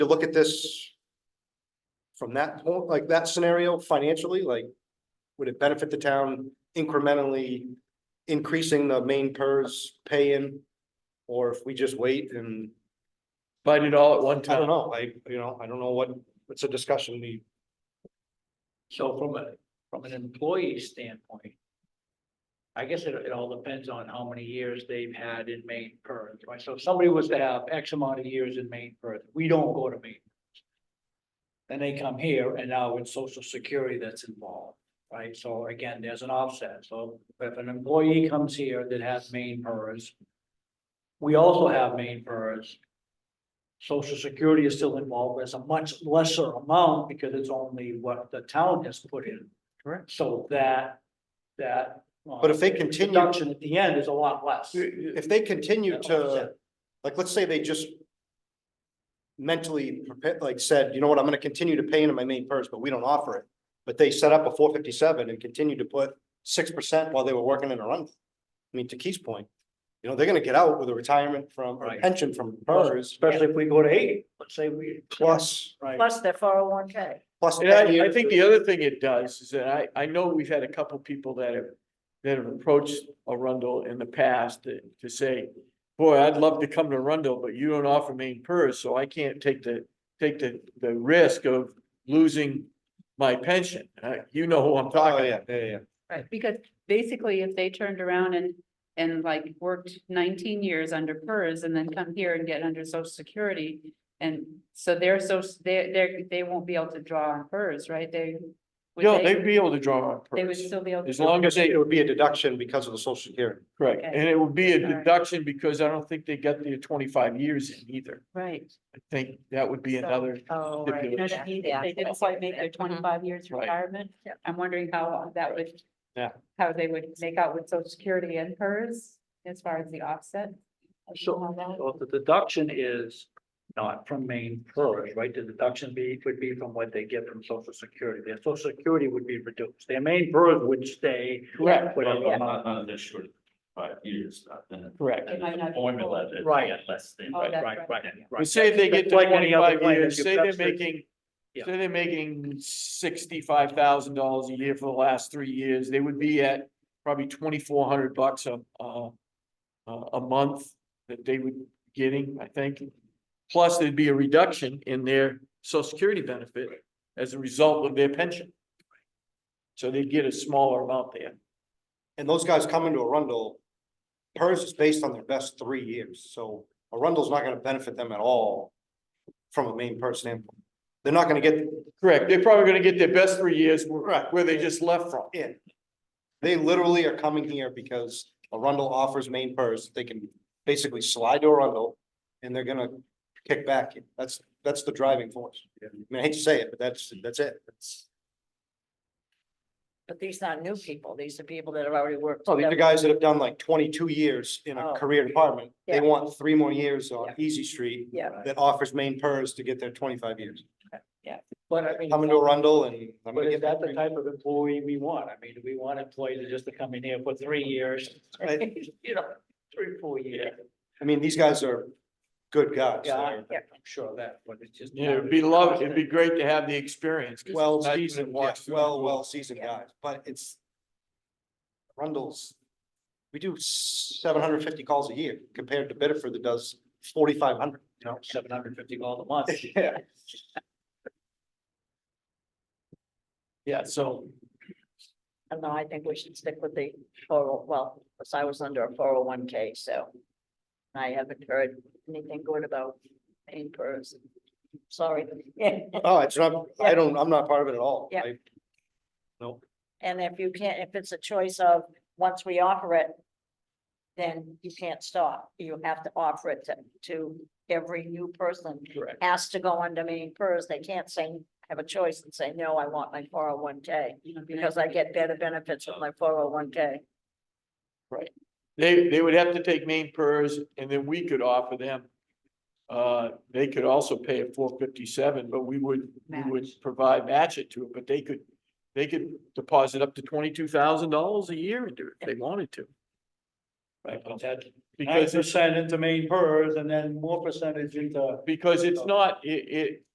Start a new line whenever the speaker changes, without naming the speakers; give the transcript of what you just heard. you look at this from that, point, like that scenario financially, like, would it benefit the town incrementally increasing the main PERS pay-in? Or if we just wait and,
Fight it all at one
I don't
time.
know, I, you know, I don't know what, it's a discussion we,
So from a, from an employee standpoint. I guess it, it all depends on how many years they've had in Maine PERS, right? So if somebody was to have X amount of years in Maine PERS, we don't go to Maine. PERS. Then they come here and now it's social security that's involved, right? So again, there's an offset. So if an employee comes here that has Maine PERS. We also have Maine PERS. Social Security is still involved, but it's a much lesser amount because it's only what the town has put in.
Correct.
So that, that. uh,
But if they continue-
Deduction at the end is a lot less.
if they continue to,
Offset.
like, let's say they just mentally prepared, like said, you know what, I'm gonna continue to pay into my main PERS, but we don't offer it. But they set up a four fifty-seven and continued to put six percent while they were working in a run. I mean, to Keith's point, you know, they're gonna get out with a retirement from, or
Right.
pension from PERS
Especially if we go to eight, let's say we.
plus,
Right.
plus their four oh one K.
plus
And I, I
10
think the
years.
other thing it does is that I, I know we've had a couple people that have, that have approached Arundel in the past to, to say, boy, I'd love to come to Arundel, but you don't offer main purse, so I can't take the, take the, the risk of losing my pension. Uh, you know who I'm
Oh,
talking
yeah,
about.
yeah, yeah.
Right, because basically if they turned around and, and like worked nineteen years under PERS and then come here and get under social security. And so they're so, they're, they're, they won't be able to draw on PERS, right? They. would
No, they'd be able to draw on
They would
purse.
still be able. to
As long as they,
It would be a deduction because of the social security.
correct,
Okay.
and it would be a
All right.
deduction because I don't think they got the twenty-five years in either.
Right.
I think that would be another.
Oh,
right.
right.
You know,
that means if
They didn't quite make their twenty-five years
Right.
retirement.
Yep.
I'm wondering how that would.
Yeah.
How they would make out with social security and PERS as far as the offset.
So, so the deduction is not from main PERS, right? The deduction be, would be from what they get from social security. Their social security would be reduced. Their main PERS would stay.
Correct,
whatever
Well, not,
amount.
not this short, five years, not then.
correct.
It might not be
Formula
full.
that.
Right.
yeah, Less than.
Oh,
right.
that's
Right,
right.
right,
Yeah.
But
right.
say they
That's
get to
like any other
twenty-five
plan,
years,
if
say
that's
they're
the-
making,
Yeah.
say they're making sixty-five thousand dollars a year for the last three years, they would be at probably twenty-four hundred bucks a, uh, a, a month that they would be getting, I think. Plus, there'd be a reduction in their social security benefit as a result of their pension. So they'd get a smaller amount there.
And those guys come into Arundel, PERS is based on their best three years, so Arundel's not gonna benefit them at all from a main PERS standpoint. They're not gonna get,
Correct, they're probably gonna get their best three years where where they just left from.
in. They literally are coming here because Arundel offers main purse, they can basically slide to Arundel and they're gonna kick back. That's, that's the driving force. I mean, I hate to say it, but that's, that's it. It's,
But these not new people, these are people that have already worked.
oh, these are guys that have done like twenty-two years in a
Oh.
career department. They
Yeah.
want three more years on
Yeah.
Easy Street
Yeah,
that offers main purse to get their twenty-five years.
But I mean.
Coming to Arundel and I'm
But
gonna
is
get
that the
that.
type of employee we want? I mean, do we want employees that just to come in here for three years? You know, three, four years.
I mean, these guys are good guys.
Yeah, I-
They're
I'm sure of that, but it's just.
Yeah, it'd be love, it'd be great to have the experience. 'cause
well
it's not even a
seasoned, yeah,
walk through the
well,
door.
well seasoned
Yeah.
guys, but it's. Rundles, we do seven hundred and fifty calls a year compared to Biddeford that does forty-five hundred.
You know, seven hundred fifty dollars a month.
Yeah.
Yeah, so,
and no, I think we should stick with the four, oh, well, because I was under a four oh one K, so. I haven't heard anything good about any person. Sorry, yeah,
Oh, it's not, I don't, I'm not part of it at all.
Yeah.
I-
and if you can't, if it's a choice of, once we offer it. Then you can't stop, you have to offer it to, to every new person
correct.
has to go under main PERS, they can't say, have a choice and say, no, I want my four oh one K. Because I get better benefits with my four oh one K.
They, they would have to take main purrs and then we could offer them. Uh, they could also pay a four fifty-seven, but we would, we would provide match it to it, but they could. They could deposit up to twenty-two thousand dollars a year into it if they wanted to.
Right, but that,
because
Nine
it's,
percent into main PERS and then more percentage into.
because it's not, it, it,